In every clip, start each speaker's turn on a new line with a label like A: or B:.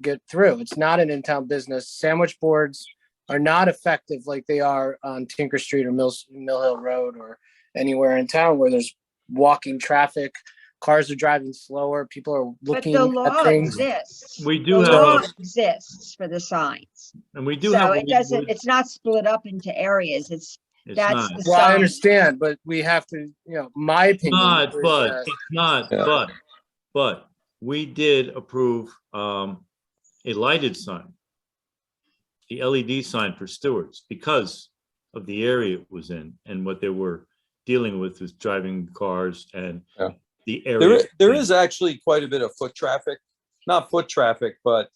A: get through. It's not an in-town business. Sandwich boards are not effective like they are on Tinker Street or Mills, Mill Hill Road or anywhere in town where there's walking traffic, cars are driving slower, people are
B: But
A: looking
B: the law
A: at things.
B: exists.
C: We
B: The
C: do have,
B: law
C: a
B: exists for the signs.
C: and we do have.
B: So
C: a
B: it doesn't,
C: it's
B: it's not split up into areas. It's, that's
C: not,
B: the
C: It's
A: Well, I
B: sign.
A: understand, but we have to, you know, my opinion.
C: not,
A: is
C: but,
A: that-
C: it's not,
D: Yeah.
C: but, but, we did approve, um, a lighted sign. The LED sign for Stewart's because of the area it was in and what they were dealing with was driving cars and
D: Yeah.
C: the
D: There,
C: area.
D: i- there is actually quite a bit of foot traffic, not foot traffic, but,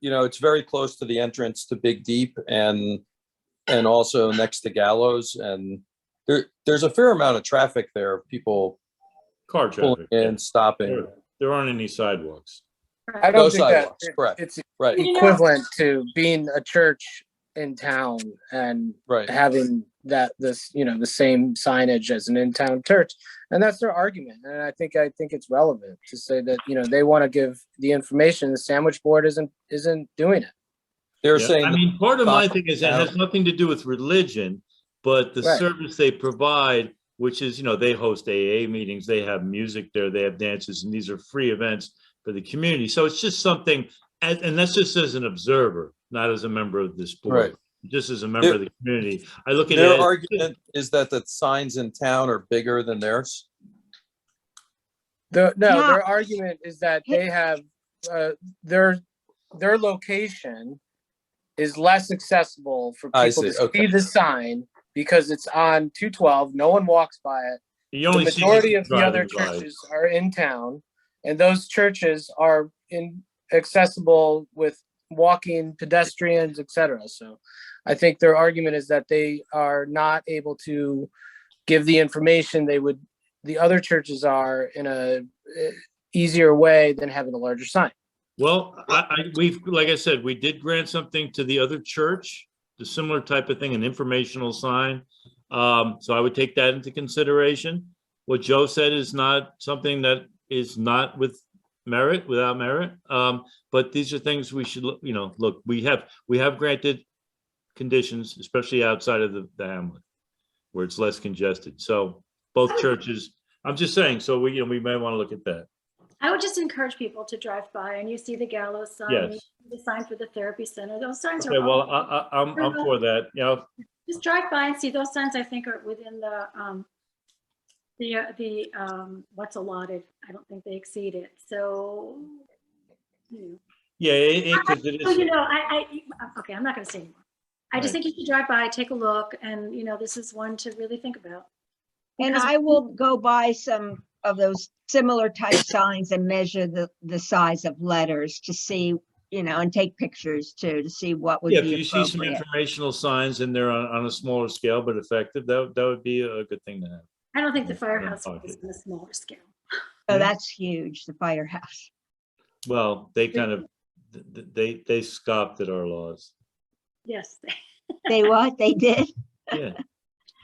D: you know, it's very close to the entrance to Big Deep and, and also next to Gallows and there, there's a fair amount of traffic there, of people
C: Car
D: pulling
C: traffic.
D: in, stopping,
C: There there aren't any sidewalks.
A: I
D: no
A: don't think that,
D: sidewalks, correct,
A: it's
D: right,
A: equivalent to being a church in town and
D: right.
A: having that this you know the same signage as an in-town church and that's their argument and i think i think it's relevant to say that you know they want to give the information the sandwich board isn't isn't doing it
D: They're
C: Yeah,
D: saying
C: I
D: that
C: mean, part of my
D: Bob-
C: thing is it has nothing to do with religion, but the
A: Right.
C: service they provide, which is, you know, they host AA meetings, they have music there, they have dances, and these are free events for the community. So it's just something, and, and that's just as an observer, not as a member of this board.
D: Right.
C: Just as a member of the community. I look at it.
D: Their
C: as-
D: argument is that the signs in town are bigger than theirs.
A: the, no
B: Yeah.
A: their argument is that they have uh, their their location is less accessible for
D: I
A: people to
D: see,
A: see
D: okay.
A: the sign because it's on 212 no one walks by it
C: You
A: the
C: only see
A: majority of the
C: driving
A: other
C: by.
A: churches are in town, and those churches are in accessible with walking pedestrians, etc. So I think their argument is that they are not able to give the information they would the other churches are in a eh, easier way than having a larger sign.
C: Well, I, I, we've, like I said, we did grant something to the other church, the similar type of thing, an informational sign. Um, so I would take that into consideration. What Joe said is not something that is not with merit, without merit. Um, but these are things we should, look- you know, look, we have, we have granted conditions, especially outside of the, the hamlet, where it's less congested. So both churches, I'm just saying, so we, you know, we may want to look at that.
E: I would just encourage people to drive by and you see the gallows sign, you
C: Yes.
E: see the sign for the therapy center, those signs
C: Okay,
E: are, all-
C: well, I, I, I'm, I'm for that, you know,
E: just drive by and see those signs, I think are within the, um, the, uh, the, um, what's allotted. I don't think they exceed it, so. hmm.
C: Yeah, it, it, 'cause it
E: Well, You
C: is,
E: know, I, I, okay, I'm not gonna say anymore. I just
C: Right.
E: think you should drive by, take a look, and, you know, this is one to really think about.
B: and
E: Because-
B: I will go buy some of those similar type signs and measure the, the size of letters to see, you know, and take pictures too, to see what would
C: yeah, if
B: be
C: you see some
B: appropriate.
C: informational signs in there on, on a smaller scale, but effective, that, that would be a good thing to have.
E: I don't think the
C: Yeah,
E: firehouse
C: okay.
E: is on a smaller scale.
B: So that's huge, the firehouse.
C: Well, they kind of, th- th- they, they scoffed at our laws.
E: Yes.
B: They what? They did?
C: Yeah.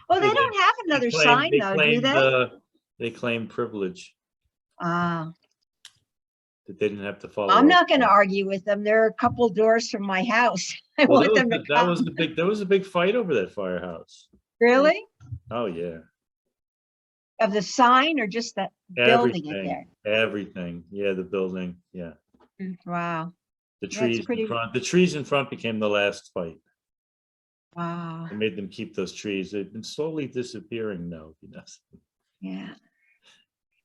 B: Well, they
C: Yeah, they-
B: don't have another
C: They claim-
B: sign
C: they
B: though, do
C: claim,
B: they?
C: uh, They claim privilege
B: Ah,
C: that they didn't have to follow.
B: I'm
C: our-
B: not gonna argue with them. They're a couple doors from my house. I
C: Well,
B: want
C: that was
B: them to
C: the- That was
B: come.
C: the big, there was a big fight over that firehouse.
B: Really?
C: Oh, yeah.
B: Of the sign or just that building it
C: Everything,
B: there?
C: everything. Yeah, the building, yeah.
B: Wow,
C: The
B: That's
C: trees in
B: pretty-
C: front, the trees in front became the last fight.
B: wow,
C: I made them keep those trees. They've been slowly disappearing now, you know.
B: yeah.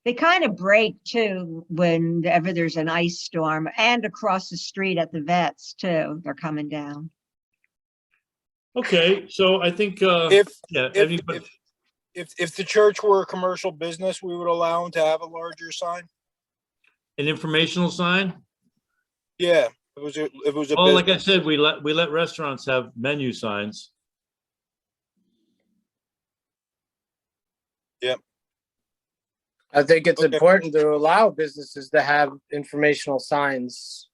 B: They kind of break too whenever there's an ice storm and across the street at the vets too. They're coming down.
C: Okay, so I think, uh,
F: If,
C: yeah,
F: if-
C: anybody,
F: if, if the church were a commercial business, we would allow them to have a larger sign?
C: an informational sign?
F: Yeah, if it was, a- if it was a
C: Oh, like
F: business.
C: I said, we let, we let restaurants have menu signs.
A: I think it's
F: Okay.
A: important to allow businesses to have informational signs.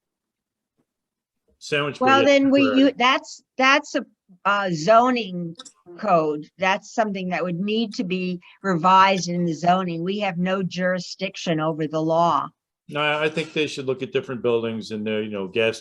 C: Sandwich.
B: Well,
C: board,
B: then we,
C: temporary.
B: you, that's, that's a uh, zoning code. That's something that would need to be revised in the zoning. We have no jurisdiction over the law.
C: No, I I think they should look at different buildings and their, you know, gas